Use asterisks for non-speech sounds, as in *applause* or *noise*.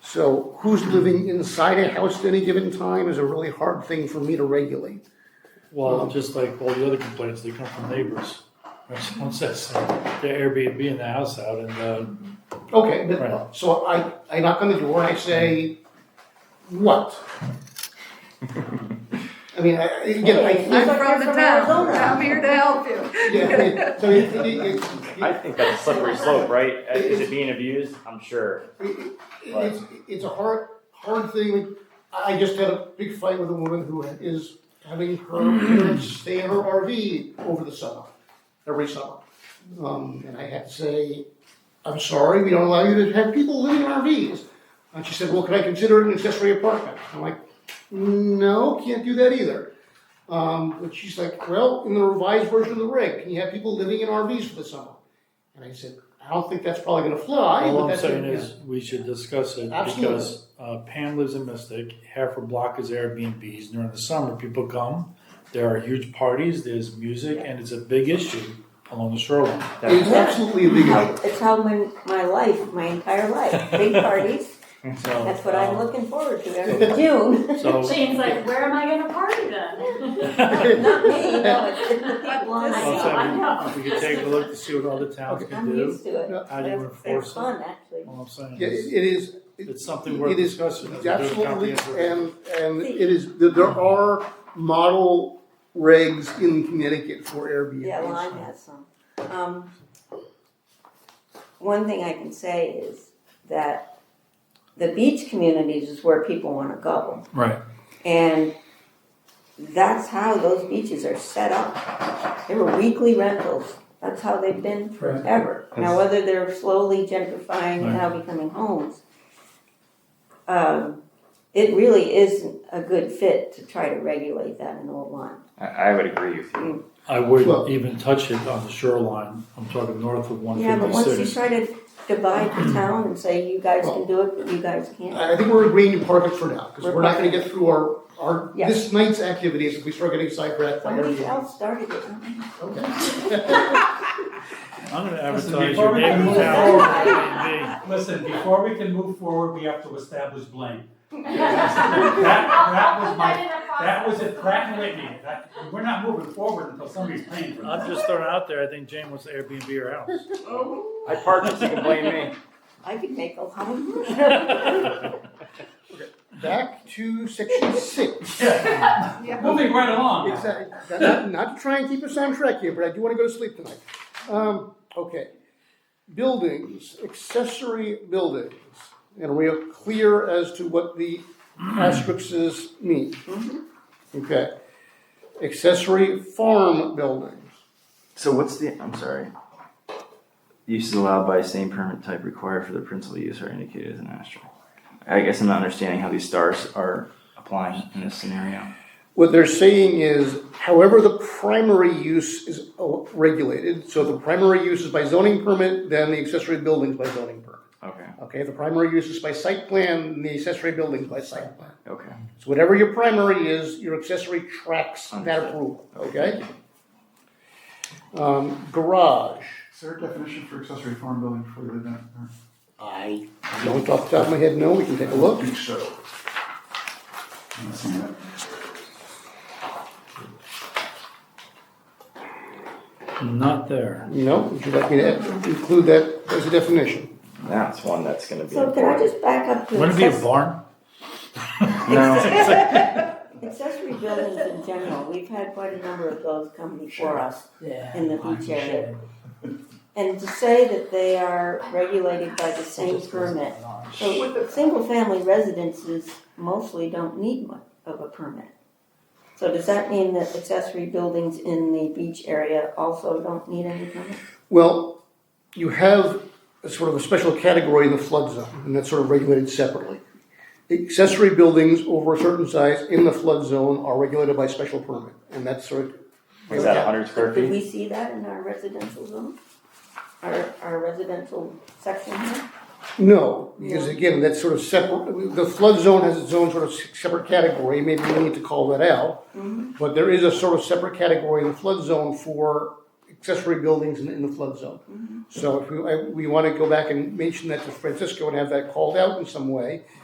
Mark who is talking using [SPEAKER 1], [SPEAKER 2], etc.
[SPEAKER 1] So who's living inside a house at any given time is a really hard thing for me to regulate.
[SPEAKER 2] Well, just like all the other complaints, they come from neighbors. When *laughs* someone says their Airbnb in the house out and, uh,
[SPEAKER 1] Okay,
[SPEAKER 2] Right.
[SPEAKER 1] but, so I, I knock on the door and I say, what? I mean, I, again, I.
[SPEAKER 3] Hey,
[SPEAKER 4] I'm
[SPEAKER 3] Like
[SPEAKER 4] from the
[SPEAKER 3] you're from
[SPEAKER 4] town,
[SPEAKER 3] Arizona.
[SPEAKER 4] I'm here to help you.
[SPEAKER 1] Yeah, I mean, so it, it, it-
[SPEAKER 5] I
[SPEAKER 1] it-
[SPEAKER 5] think that's a slippery slope, right? Uh, Is it being abused? I'm sure.
[SPEAKER 1] it's, it's a hard, hard thing. I I just had a big fight with a woman who is having her parents stay in her RV over the summer, every summer. Um, and I had to say, I'm sorry, we don't allow you to have people living in RVs. And she said, well, can I consider it an accessory apartment? I'm like, no, can't do that either. Um, but she's like, well, in the revised version of the reg, can you have people living in RVs for the summer? And I said, I don't think that's probably gonna fly, but
[SPEAKER 2] all I'm
[SPEAKER 1] that's.
[SPEAKER 2] saying is we should discuss it
[SPEAKER 1] Absolutely.
[SPEAKER 2] because uh, Pam lives in Mystic, half her block is Airbnbs. During the summer, people come, there are huge parties, there's music, and it's a big issue along the shoreline.
[SPEAKER 1] It's absolutely a big issue.
[SPEAKER 3] It's how my, my life, my entire life, big parties,
[SPEAKER 2] So,
[SPEAKER 3] that's what
[SPEAKER 2] um,
[SPEAKER 3] I'm looking forward to every June.
[SPEAKER 2] So, *laughs*
[SPEAKER 6] Shane's like, where am I gonna party
[SPEAKER 3] Not
[SPEAKER 6] then?
[SPEAKER 3] me, no,
[SPEAKER 4] *laughs*
[SPEAKER 3] it's the people on
[SPEAKER 2] I'm
[SPEAKER 3] my
[SPEAKER 6] Well,
[SPEAKER 3] side.
[SPEAKER 2] saying we, we could take a look to see what other towns can
[SPEAKER 3] I'm
[SPEAKER 2] do.
[SPEAKER 3] used to it.
[SPEAKER 1] No,
[SPEAKER 2] How do you
[SPEAKER 3] That's-
[SPEAKER 2] enforce
[SPEAKER 3] It's
[SPEAKER 2] it?
[SPEAKER 3] fun, actually.
[SPEAKER 2] All I'm saying
[SPEAKER 1] Yeah,
[SPEAKER 2] is,
[SPEAKER 1] it it is.
[SPEAKER 2] it's something worth
[SPEAKER 1] It is
[SPEAKER 2] discussing. as we do a
[SPEAKER 1] Absolutely,
[SPEAKER 2] comprehensive-
[SPEAKER 1] and, and it is, there are model regs in Connecticut for Airbnb.
[SPEAKER 3] Yeah, Lime has some. Um, One thing I can say is that the beach communities is where people wanna go.
[SPEAKER 2] Right.
[SPEAKER 3] And that's how those beaches are set up. They were weekly rentals. That's how they've been forever. Now, whether they're slowly gentrifying and now becoming homes, um, it really isn't a good fit to try to regulate that in Old Lyme.
[SPEAKER 5] I, I would agree with you.
[SPEAKER 2] I wouldn't
[SPEAKER 1] Well-
[SPEAKER 2] even touch it on the shoreline, I'm talking north of one
[SPEAKER 3] Yeah, but once you
[SPEAKER 2] fifty-six.
[SPEAKER 3] try to divide the town and say, you guys can do it, but you guys can't,
[SPEAKER 1] I I think we're agreeing in part of it for now, because we're not gonna get through our, our, this night's activities if we start getting sidetracked by
[SPEAKER 3] somebody
[SPEAKER 1] Airbnb.
[SPEAKER 3] else started it, not me.
[SPEAKER 1] Okay. *laughs*
[SPEAKER 2] I'm gonna
[SPEAKER 7] Listen,
[SPEAKER 2] advertise your
[SPEAKER 7] before we
[SPEAKER 2] neighbor's
[SPEAKER 3] move
[SPEAKER 2] house
[SPEAKER 3] on-
[SPEAKER 2] Airbnb.
[SPEAKER 7] Listen, before we can move forward, we have to establish blame. That, that was my, that was it, Pratt and Whitney, that, we're not moving forward until somebody's paying for
[SPEAKER 2] I'm
[SPEAKER 7] this.
[SPEAKER 2] just throwing it out there, I think Jane wants Airbnb or house.
[SPEAKER 5] I partners, you can blame me.
[SPEAKER 3] I could make a lot of money.
[SPEAKER 1] Back to section six.
[SPEAKER 7] Moving right along.
[SPEAKER 1] Exactly. Not, not to try and keep us on track here, but I do wanna go to sleep tonight. Um, okay. Buildings, accessory buildings, and we are clear as to what the asterisks mean. Okay. Accessory farm buildings.
[SPEAKER 8] So what's the, I'm sorry. Use is allowed by same permit type required for the principal use are indicated as an asterisk. I guess I'm not understanding how these stars are applying in this scenario.
[SPEAKER 1] What they're saying is, however, the primary use is uh, regulated, so if the primary use is by zoning permit, then the accessory building's by zoning permit.
[SPEAKER 8] Okay,
[SPEAKER 1] Okay, if the primary use is by site plan, then the accessory building's by site plan.
[SPEAKER 8] okay.
[SPEAKER 1] So whatever your primary is, your accessory tracks that
[SPEAKER 8] Understood.
[SPEAKER 1] approval, okay? Um, garage,
[SPEAKER 9] Is there a definition for accessory farm building before we leave that? Or-
[SPEAKER 1] I don't off the top of my head, no, we can take a look.
[SPEAKER 9] so. I'm not seeing that.
[SPEAKER 2] Not there.
[SPEAKER 1] No, would you like me to include that as a definition?
[SPEAKER 8] That's one that's gonna
[SPEAKER 3] *laughs*
[SPEAKER 8] be
[SPEAKER 3] So can I
[SPEAKER 8] important.
[SPEAKER 3] just back up to
[SPEAKER 2] Wouldn't it be a
[SPEAKER 3] access- *laughs*
[SPEAKER 2] barn?
[SPEAKER 8] No,
[SPEAKER 3] accessory buildings in general? We've had quite a number of those come before us in the beach area. And to say that they are regulated by the same permit, so single-family residences mostly don't need much of a permit. So does that mean that accessory buildings in the beach area also don't need any permit?
[SPEAKER 1] Well, you have a sort of a special category in the flood zone, and that's sort of regulated separately. Accessory buildings over a certain size in the flood zone are regulated by special permit, and that's sort of.
[SPEAKER 5] Is that hundred square
[SPEAKER 3] Do
[SPEAKER 5] feet?
[SPEAKER 3] we see that in our residential zone? Our, our residential section here?
[SPEAKER 1] No, because again, that's sort of separate, the flood zone has its own sort of separate category, maybe we need to call that out. But there is a sort of separate category in the flood zone for accessory buildings in, in the flood zone. So if we, I- we wanna go back and mention that to Francisco and have that called out in some way,